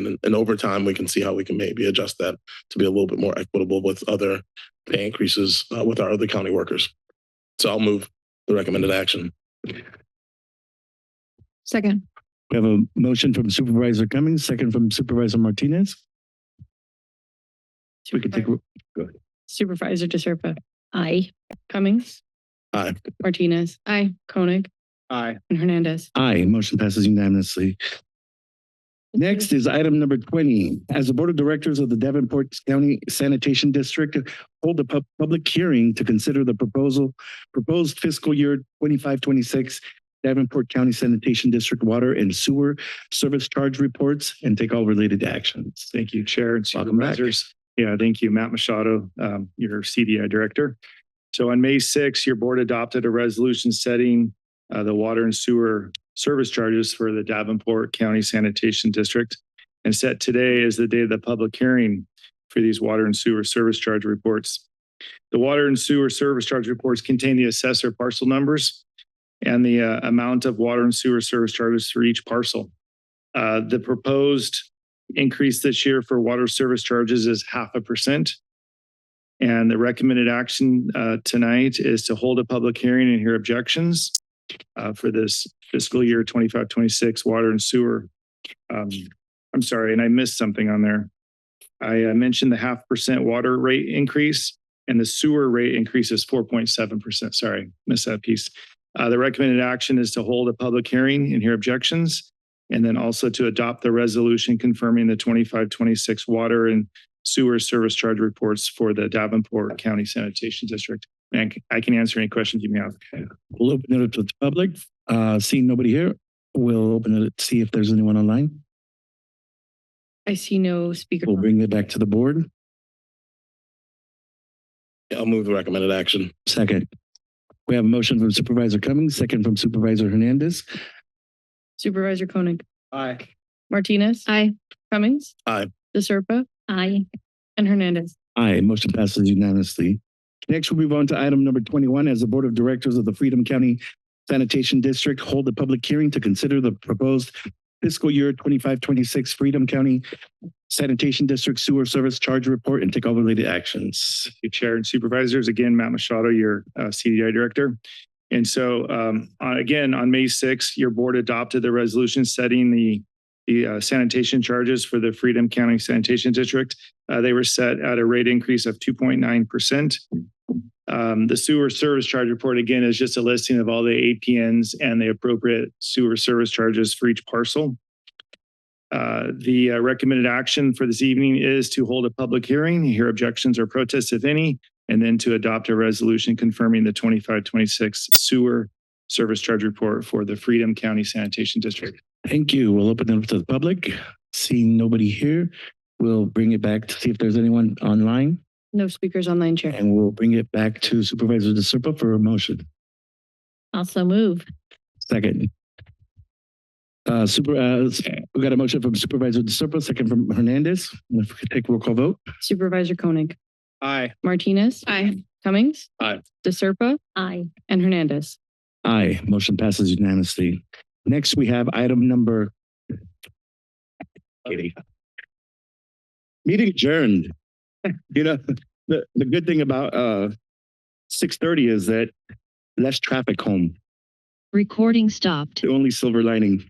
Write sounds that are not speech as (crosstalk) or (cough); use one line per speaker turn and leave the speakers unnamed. And then, and over time, we can see how we can maybe adjust that to be a little bit more equitable with other pay increases uh, with our other county workers. So I'll move the recommended action.
Second.
We have a motion from Supervisor Cummings, second from Supervisor Martinez. We could take,
Supervisor DeSerpa. Aye. Cummings.
Aye.
Martinez. Aye. Koenig
Aye.
and Hernandez.
aye, motion passes unanimously. Next is item number twenty. As the Board of Directors of the Davenport County Sanitation District hold a pub- public hearing to consider the proposal, proposed fiscal year twenty-five, twenty-six Davenport County Sanitation District Water and Sewer Service Charge Reports and take all related actions.
Thank you, Chair and
Welcome back.
Supervisors. Yeah, thank you, Matt Machado, um, your CDI Director. So on May 6, your board adopted a resolution setting uh, the water and sewer service charges for the Davenport County Sanitation District. And set today as the day of the public hearing for these water and sewer service charge reports. The water and sewer service charge reports contain the assessor parcel numbers and the uh, amount of water and sewer service charges for each parcel. Uh, The proposed increase this year for water service charges is half a percent. And the recommended action uh, tonight is to hold a public hearing and hear objections uh, for this fiscal year 25-26 water and sewer. Um, I'm sorry, and I missed something on there. I uh, mentioned the half percent water rate increase and the sewer rate increase is four point seven percent. Sorry, missed that piece. Uh, The recommended action is to hold a public hearing and hear objections. And then also to adopt the resolution confirming the twenty-five, twenty-six water and sewer service charge reports for the Davenport County Sanitation District. And I can- I can answer any questions you may have.
We'll open it up to the public. Uh, seeing nobody here, we'll open it, see if there's anyone online.
I see no speaker.
We'll bring it back to the board.
Yeah, I'll move the recommended action.
Second. We have a motion from Supervisor Cummings, second from Supervisor Hernandez.
Supervisor Koenig.
Aye.
Martinez. Aye. Cummings.
Aye.
DeSerpa. Aye. And Hernandez.
Aye, motion passes unanimously. Next, we'll move on to item number twenty-one. As the Board of Directors of the Freedom County Sanitation District hold a public hearing to consider the proposed fiscal year twenty-five, twenty-six Freedom County Sanitation District Sewer Service Charge Report and take all related actions.
your chair and supervisors. Again, Matt Machado, your uh, CDI director. And so, um, on- again, on May 6th, your board adopted the resolution setting the, the uh, sanitation charges for the Freedom County Sanitation District. Uh, they were set at a rate increase of 2.9%. Um, the sewer service charge report, again, is just a listing of all the APNs and the appropriate sewer service charges for each parcel. Uh, The uh, recommended action for this evening is to hold a public hearing, hear objections or protests if any, and then to adopt a resolution confirming the 2526 sewer service charge report for the Freedom County Sanitation District.
Thank you. We'll open it up to the public. Seeing nobody here, we'll bring it back to see if there's anyone online.
No speakers online, Chair.
And we'll bring it back to Supervisor DeSerpa for a motion.
Also move.
Second. Uh, super, uh, we got a motion from Supervisor DeSerpa, second from Hernandez. If we could take roll call vote.
Supervisor Koenig.
Aye.
Martinez. Aye. Cummings.
Aye.
DeSerpa. Aye. And Hernandez.
Aye, motion passes unanimously. Next, we have item number. Katie. Meeting adjourned. (laughs) You know, the, the good thing about, uh, six thirty is that less traffic home,
Recording stopped.
the only silver lining.